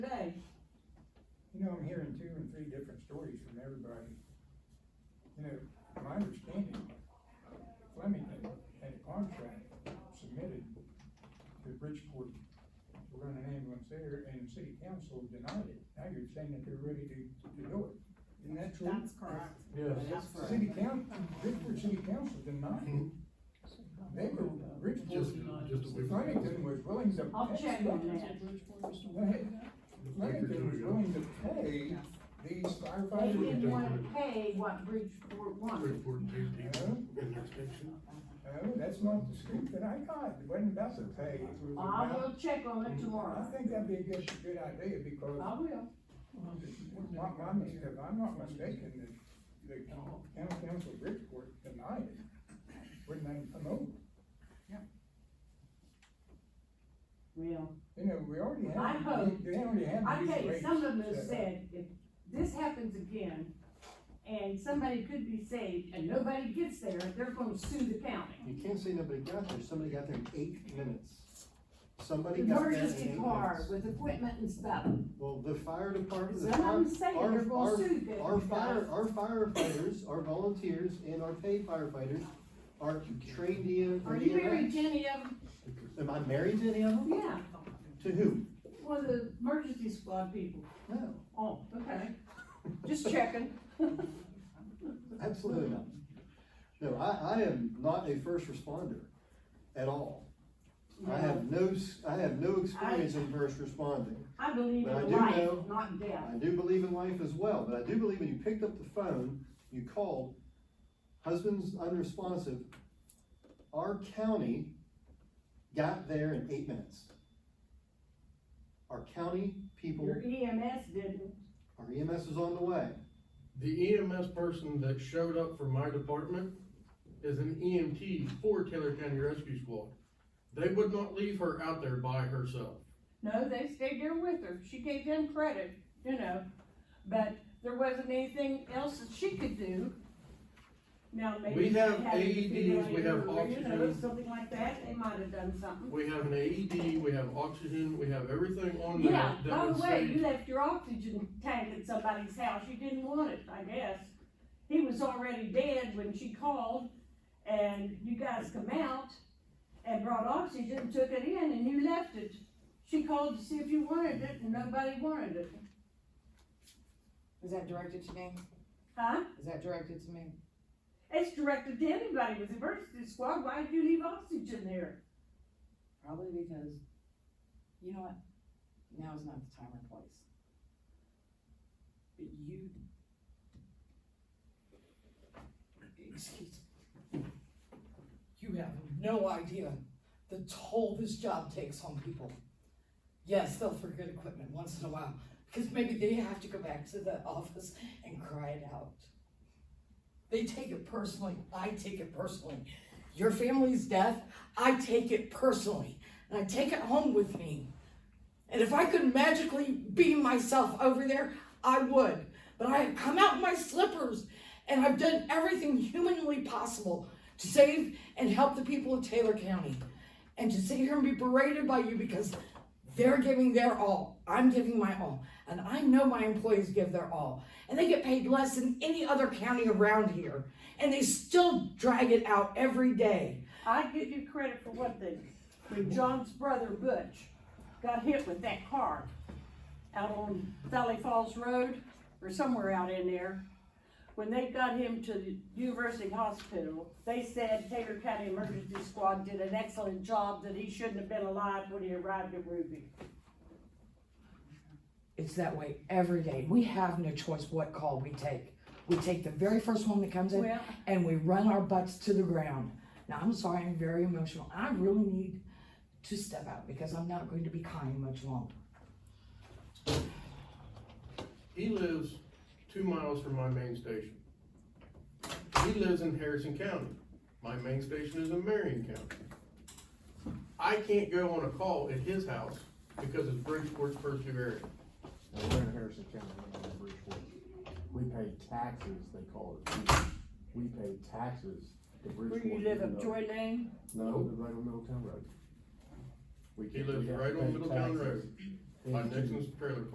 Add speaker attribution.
Speaker 1: today.
Speaker 2: You know, I'm hearing two and three different stories from everybody. You know, my understanding, Flemington had a contract submitted to Bridgeport to run an ambulance there, and the city council denied it. Now you're saying that they're ready to, to do it. Isn't that true?
Speaker 3: That's correct.
Speaker 4: Yes.
Speaker 3: That's
Speaker 2: The
Speaker 3: correct.
Speaker 2: City council, Bridgeport City Council denied it. They were, Bridgeport,
Speaker 5: Just, just a week.
Speaker 2: Flemington was willing to.
Speaker 1: I'll
Speaker 2: pay-
Speaker 1: check on that.
Speaker 2: Hey, Flemington was willing to pay
Speaker 3: Yes.
Speaker 2: these
Speaker 1: They
Speaker 2: firefighters.
Speaker 1: didn't wanna pay what Bridgeport wanted.
Speaker 5: Report to the inspection.
Speaker 2: No, that's not the scoop that I got, it wasn't about the pay, it was
Speaker 1: I
Speaker 2: about.
Speaker 1: will check on it
Speaker 2: I
Speaker 1: tomorrow.
Speaker 2: think that'd be a good, good idea, because
Speaker 1: I will.
Speaker 2: my, my mistake, if I'm not mistaken, the, the county council of Bridgeport denied it. Wouldn't let them come over,
Speaker 1: Well,
Speaker 2: you know, we already
Speaker 1: I
Speaker 2: have,
Speaker 1: hope-
Speaker 2: they already have.
Speaker 1: I
Speaker 2: these
Speaker 1: tell you,
Speaker 2: rates
Speaker 1: some of them
Speaker 2: set up.
Speaker 1: said, if this happens again, and somebody could be saved, and nobody gets there, they're gonna sue the county.
Speaker 4: You can't say nobody got there, somebody got there in eight minutes. Somebody got there in eight
Speaker 1: Emergency car
Speaker 4: minutes.
Speaker 1: with equipment and stuff.
Speaker 4: Well, the fire department, the
Speaker 1: Some
Speaker 4: fire,
Speaker 1: of them say
Speaker 4: our-
Speaker 1: they're gonna
Speaker 4: our-
Speaker 1: sue them,
Speaker 4: Our
Speaker 1: you
Speaker 4: fire,
Speaker 1: guys.
Speaker 4: our firefighters, our volunteers, and our paid firefighters are trained in.
Speaker 1: Are you married to any of them?
Speaker 4: Am I married to any of them?
Speaker 1: Yeah,
Speaker 4: To who?
Speaker 1: one of the emergency squad people.
Speaker 4: No,
Speaker 1: Oh, okay. Just checking.
Speaker 4: absolutely not. No, I, I am not a first responder at all. I have no, s- I have no experience in first responding.
Speaker 1: I believe
Speaker 4: But I
Speaker 1: in
Speaker 4: do
Speaker 1: life,
Speaker 4: know-
Speaker 1: not death.
Speaker 4: I do believe in life as well, but I do believe when you picked up the phone, you called, husband's unresponsive, our county got there in eight minutes. Our county people,
Speaker 1: Your EMS didn't.
Speaker 4: our E EMS was on the way.
Speaker 5: The EMS person that showed up for my department is an EMT for Taylor County Rescue Squad. They would not leave her out there by herself.
Speaker 1: No, they stayed there with her. She gave them credit, you know, but there wasn't anything else that she could do. Now, maybe.
Speaker 5: We
Speaker 1: she
Speaker 5: have
Speaker 1: had to figure
Speaker 5: AEDs, we
Speaker 1: out
Speaker 5: have
Speaker 1: or, you know,
Speaker 5: oxygen.
Speaker 1: Something like that, they might have done something.
Speaker 5: We have an AED, we have oxygen, we have everything on there.
Speaker 1: Yeah,
Speaker 5: that
Speaker 1: by the
Speaker 5: would
Speaker 1: way,
Speaker 5: save-
Speaker 1: you left your oxygen tank at somebody's house. You didn't want it, I guess. He was already dead when she called and you guys come out and brought oxygen, took it in and you left it. She called to see if you wanted it and nobody wanted it.
Speaker 3: Is that directed to me?
Speaker 1: Huh?
Speaker 3: Is that directed to me?
Speaker 1: It's directed to anybody with emergency squad. Why did you leave oxygen there?
Speaker 3: Probably because, you know what, now is not the time or place. But you. Excuse me. You have no idea the toll this job takes on people. Yes, they'll forget equipment once in a while, because maybe they have to go back to the office and cry it out. They take it personally, I take it personally. Your family's death, I take it personally, and I take it home with me. And if I could magically beam myself over there, I would. But I have come out in my slippers, and I've done everything humanly possible to save and help the people of Taylor County. And to sit here and be berated by you because they're giving their all, I'm giving my all, and I know my employees give their all, and they get paid less than any other county around here, and they still drag it out every day.
Speaker 1: I give you credit for one thing. When John's brother Butch got hit with that car out on Valley Falls Road or somewhere out in there, when they got him to the University Hospital, they said Taylor County Emergency Squad did an excellent job, that he shouldn't have been alive when he arrived at Ruby.
Speaker 6: It's that way every day. We have no choice what call we take. We take the very first one that comes in
Speaker 1: Well,
Speaker 6: and we run our butts to the ground. Now, I'm sorry, I'm very emotional. I really need to step out because I'm not going to be kind much longer.
Speaker 5: He lives two miles from my main station. He lives in Harrison County. My main station is in Marion County. I can't go on a call at his house because it's Bridgeport's purview area.
Speaker 7: And we're in Harrison County, we're not in Bridgeport. We pay taxes, they call it. We pay taxes to
Speaker 1: where
Speaker 7: Bridgeport.
Speaker 1: you live
Speaker 7: even
Speaker 1: up
Speaker 7: though-
Speaker 1: Joy Lane?
Speaker 7: No, we live right on Middletown Road. We
Speaker 5: He
Speaker 7: can't- we
Speaker 5: lives
Speaker 7: have to
Speaker 5: right on
Speaker 7: pay
Speaker 5: Middletown
Speaker 7: taxes.
Speaker 5: Road, by
Speaker 7: And-
Speaker 5: Nixon's trailer